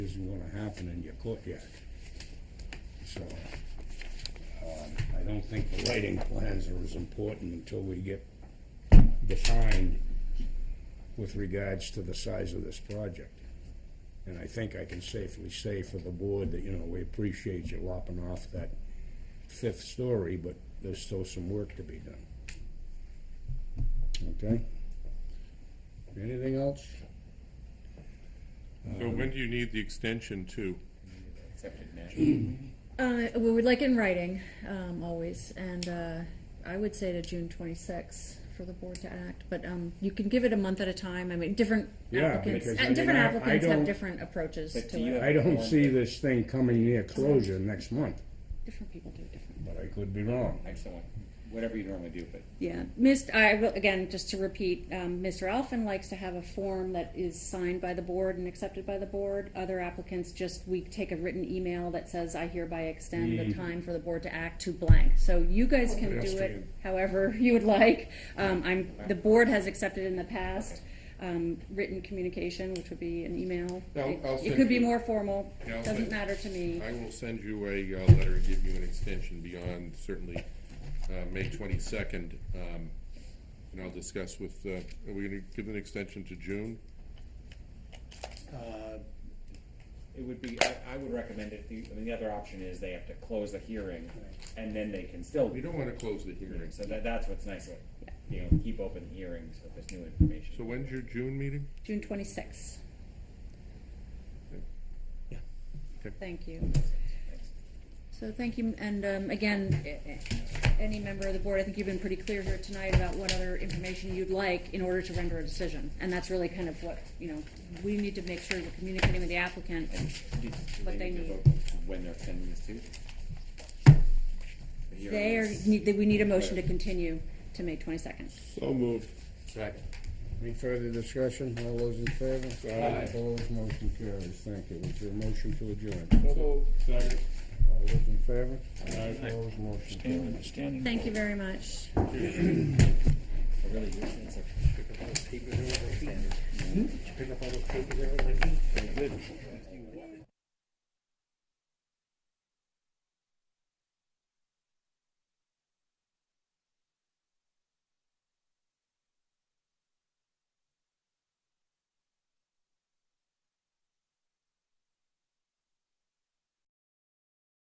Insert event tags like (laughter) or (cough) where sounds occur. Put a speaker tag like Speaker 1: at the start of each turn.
Speaker 1: isn't gonna happen in your courtyard. So, um, I don't think the lighting plans are as important until we get defined with regards to the size of this project. And I think I can safely say for the board that, you know, we appreciate you lopping off that fifth story, but there's still some work to be done. Okay? Anything else?
Speaker 2: So when do you need the extension to?
Speaker 3: Uh, we would like it in writing, um, always, and, uh, I would say to June twenty-sixth for the board to act, but, um, you can give it a month at a time, I mean, different
Speaker 1: Yeah,
Speaker 3: applicants,
Speaker 1: because,
Speaker 3: uh,
Speaker 1: I mean,
Speaker 3: different
Speaker 1: I- I
Speaker 3: applicants have
Speaker 1: don't-
Speaker 3: different approaches
Speaker 4: But
Speaker 3: to
Speaker 4: do you
Speaker 3: it.
Speaker 4: have-
Speaker 1: I don't see this thing coming near closure next month,
Speaker 3: Different people do it different.
Speaker 1: but I could be wrong.
Speaker 4: Excellent. Whatever you normally do, but
Speaker 3: Yeah, Mist, I will, again, just to repeat, um, Mr. Alphen likes to have a form that is signed by the board and accepted by the board. Other applicants, just, we take a written email that says, I hereby extend
Speaker 2: Mm.
Speaker 3: the time for the board to act to blank. So you guys can do it
Speaker 1: Pedestrian.
Speaker 3: however (laughs) you would like. Um, I'm, the board has accepted in the past, um, written communication, which would be an email.
Speaker 2: I'll-
Speaker 3: It-
Speaker 2: I'll
Speaker 3: It
Speaker 2: send
Speaker 3: could be
Speaker 2: you-
Speaker 3: more formal,
Speaker 2: Yeah, I'll
Speaker 3: doesn't
Speaker 2: send-
Speaker 3: matter to me.
Speaker 2: I will send you a uh, letter and give you an extension beyond certainly uh, May 22nd. um, And I'll discuss with, uh, are we going to give an extension to June?
Speaker 4: uh, it would be, I, I would recommend it, the, I mean, the other option is they have to close the hearing and then they can still.
Speaker 2: We don't want to close the hearing.
Speaker 4: So that, that's what's nice, like, you know, keep open hearings if there's new information.
Speaker 2: So when's your June meeting?
Speaker 3: June twenty-sixth.
Speaker 2: Okay.
Speaker 3: Thank you.
Speaker 4: Thanks.
Speaker 3: So thank you, and um, again, a- a- any member of the board, I think you've been pretty clear here tonight about what other information you'd like in order to render a decision. And that's really kind of what, you know, we need to make sure we're communicating with the applicant.
Speaker 4: Do- do
Speaker 3: What they
Speaker 4: to
Speaker 3: need.
Speaker 4: vote When they're extending this to? The hearing
Speaker 3: They are,
Speaker 4: is-
Speaker 3: need- we need a motion to continue to May twenty-second.
Speaker 2: So moved. Second.
Speaker 1: Any further discussion? All those in favor? Aye. Opposed, motion carries. Thank you. Is there a motion to adjourn?
Speaker 2: Second.
Speaker 1: All those in favor? Aye. Opposed, motion carries.
Speaker 3: Thank you very much.
Speaker 4: Oh, Really, it's like-
Speaker 5: Pick up all those papers and everything? Pick up all those papers and everything? Very good.